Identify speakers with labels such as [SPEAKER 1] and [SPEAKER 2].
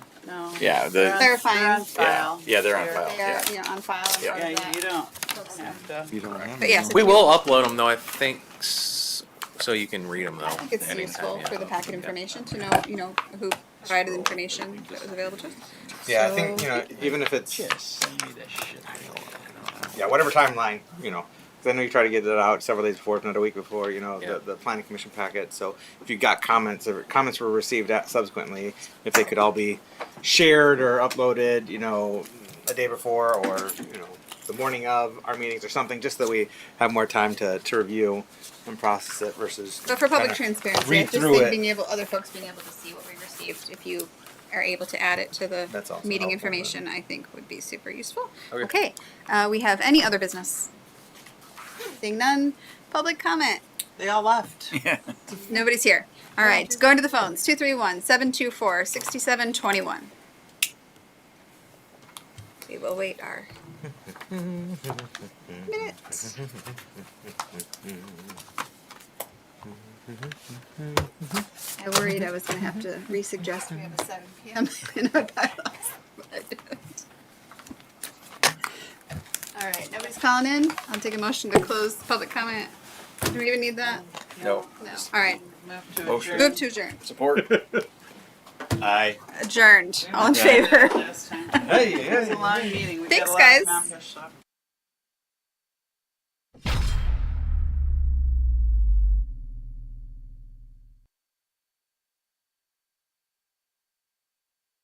[SPEAKER 1] no.
[SPEAKER 2] Yeah, the-
[SPEAKER 1] They're on-
[SPEAKER 2] They're
[SPEAKER 1] they're on
[SPEAKER 3] fine.
[SPEAKER 1] file.
[SPEAKER 2] Yeah, yeah, they're on
[SPEAKER 1] They're-
[SPEAKER 2] file.
[SPEAKER 3] They are, you know, on file in
[SPEAKER 2] Yeah.
[SPEAKER 3] front of
[SPEAKER 1] Yeah, you
[SPEAKER 3] that.
[SPEAKER 1] don't have to.
[SPEAKER 4] You don't have
[SPEAKER 3] But
[SPEAKER 4] any.
[SPEAKER 3] yes,
[SPEAKER 2] We will upload them though, I think, s- so you can read them though.
[SPEAKER 3] I think it's
[SPEAKER 2] anytime,
[SPEAKER 3] useful
[SPEAKER 2] yeah.
[SPEAKER 3] for the packet
[SPEAKER 2] Yeah.
[SPEAKER 3] information to know, you know, who provided the information that was available to us.
[SPEAKER 5] Yeah, I think,
[SPEAKER 3] So-
[SPEAKER 5] you know, even if it's,
[SPEAKER 6] send me that shit.
[SPEAKER 5] yeah, whatever timeline, you know, 'cause I know you try to get it out several days before, if not a week before, you know,
[SPEAKER 2] Yeah.
[SPEAKER 5] the, the planning commission packet. So if you got comments, or comments were received at subsequently, if they could all be shared or uploaded, you know, a day before or, you know, the morning of our meetings or something, just that we have more time to, to review and process it versus.
[SPEAKER 3] But for public
[SPEAKER 5] kinda-
[SPEAKER 3] transparency, I
[SPEAKER 5] read
[SPEAKER 3] just
[SPEAKER 5] through
[SPEAKER 3] think
[SPEAKER 5] it.
[SPEAKER 3] being able, other folks being able to see what we received, if you are able to add it to
[SPEAKER 5] That's
[SPEAKER 3] the
[SPEAKER 5] also
[SPEAKER 3] meeting
[SPEAKER 5] helpful,
[SPEAKER 3] information, I think would be super useful.
[SPEAKER 5] Okay.
[SPEAKER 3] Okay, uh, we have any other business? Seeing none, public comment,
[SPEAKER 1] They all left.
[SPEAKER 3] nobody's here. All right, going to the phones, two three one, seven two four, sixty-seven twenty-one. We will wait our minutes. I worried I was gonna have to re-suggest we have a seven PM in our bylaws. but I didn't. All right, nobody's calling in. I'll take a motion to close public comment. Do we even need that?
[SPEAKER 2] No.
[SPEAKER 3] No. All right,
[SPEAKER 1] Move to
[SPEAKER 2] Motion.
[SPEAKER 1] adjourn.
[SPEAKER 3] move to adjourn.
[SPEAKER 2] Support. Aye.
[SPEAKER 3] Adjourned. All in favor?
[SPEAKER 1] Last time.
[SPEAKER 5] Hey, hey,
[SPEAKER 1] It's a long meeting. We got
[SPEAKER 3] Thanks,
[SPEAKER 1] a lot
[SPEAKER 3] guys.
[SPEAKER 1] accomplished, so.